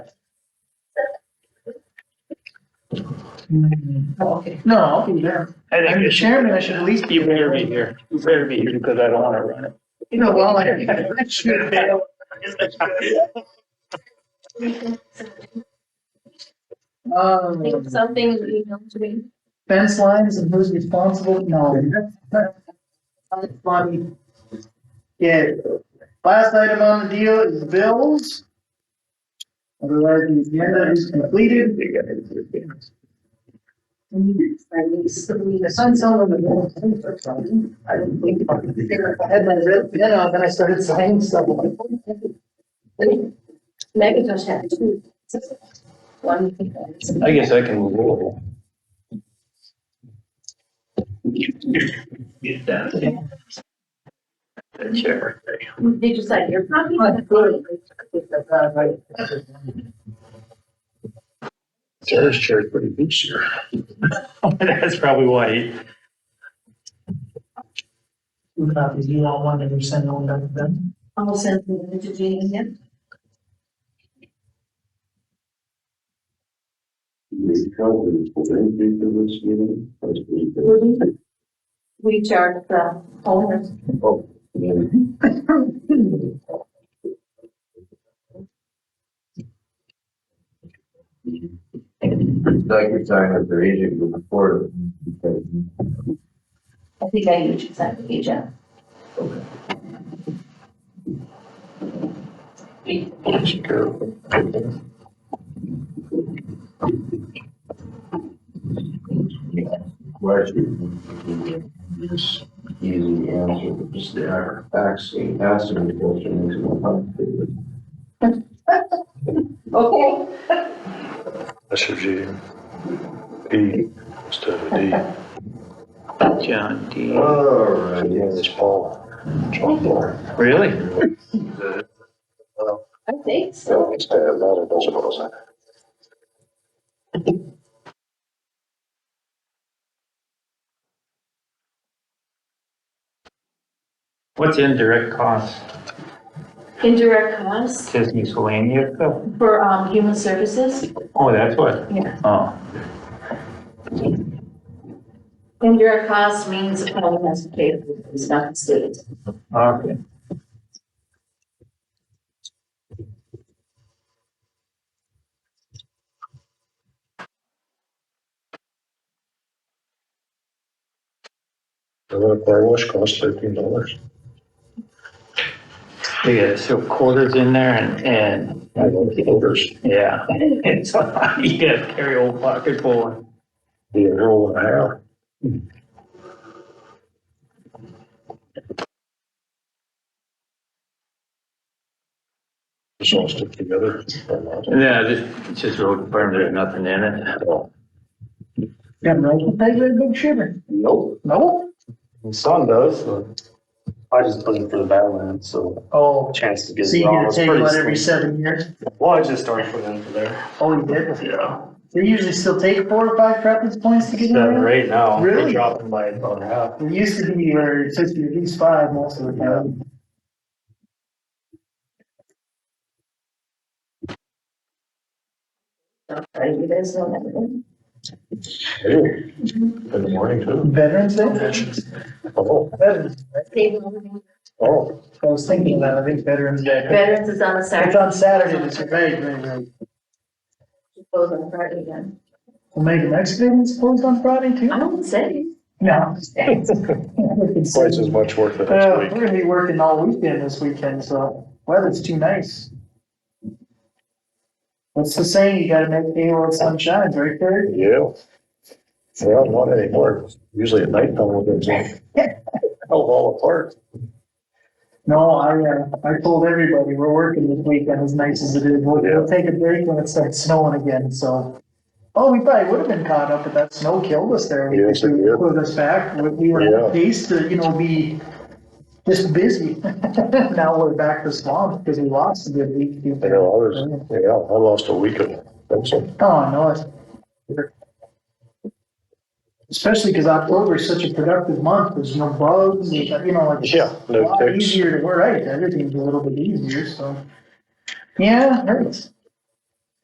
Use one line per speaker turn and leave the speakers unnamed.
Oh, okay.
No, I'll be there.
I
I'm
think
the
it should,
chairman, I should at least be
you
there.
better be here, you better be here because I don't want to run it.
You know, well, I I should be.
Think
Um,
something is emailed to me.
fence lines and who's responsible? No. Funny. Yeah, last item on the deal is bills. Otherwise, the agenda is completed. The sun's on the wall. I didn't think about it. If I had my red pen out, then I started signing stuff.
Megajosh had two. One. thing that
I guess I can. roll. Get that. That chair.
is- They just like, you're probably.
But good.
Sarah's chair is pretty big chair. That's probably why. he-
Two copies, you want one, and you send one back to them?
I'll send them to Jean again.
the calendar for the increase of this meeting, as we,
We charge the owners.
oh, and like you're talking about their agent moving forward.
I think I usually send the agent.
Question. Just easy answer, but just the act- asking, asking the question is not.
Okay.
That's your G. P instead of a D.
John D.
All right,
It's Paul. John Paul.
Really?
I think so.
Don't expand that, I don't suppose.
What's indirect cost?
Indirect costs
Just miscellaneous stuff?
for, um, human services.
Oh, that's what,
Yeah.
oh.
Indirect costs means the county has to pay for it, it's not the state.
Okay.
The car wash costs thirteen dollars.
Yeah, so quarters in there and, and,
I love the odors.
yeah. It's, you gotta carry a whole pocket full. and-
The arrow and a half. It's all stick together.
Yeah, just, it's just road department, there's nothing in it.
Yeah, right, they a big shiver.
Nope,
No?
my son does, but I just put him for the Badlands, so
Oh,
chance to get
so you
drawn
get to
was
take
pretty
one every
slim.
seven years?
Well, I just started putting him for there.
Oh, you did?
Yeah.
They usually still take four or five preference points to get in
Seven or
there?
eight now,
Really?
they dropped him by about half.
It used to be where it's just at least five most of the time.
Right, you guys know that.
Hey, In the morning too.
Veterans Day?
Oh,
Veterans,
State
oh,
I was thinking that, I think Veterans Day.
Veterans is on the
It's
Saturday.
on Saturday, it's right, right, right.
Goes on Friday again.
Omega Mexicans closed on Friday too?
I don't say.
No, I'm just kidding.
twice as much work the
Uh,
next
we're
week.
gonna be working all weekend this weekend, so weather's too nice. What's the saying? You gotta make hay while the sun shines, right there?
Yeah. Well, not anymore. Usually at night, time will get drunk. Held all apart.
No, I, uh, I told everybody, we're working this weekend as nice as it is. We'll, we'll take a break when it starts snowing again, so. Oh, we probably would have been caught up, but that snow killed us there.
Yes, it did.
Put us back. We- We were
Yeah.
paced to, you know, be just busy. Now we're back to swamp because we lost a good week.
You know, I was, yeah, I lost a week of, that's a
Oh, no, it's. Especially because October is such a productive month, there's no bugs, you know, like. it's
Yeah,
A
no
lot
ticks.
easier to, we're right, everything's a little bit easier, so. Yeah, it hurts.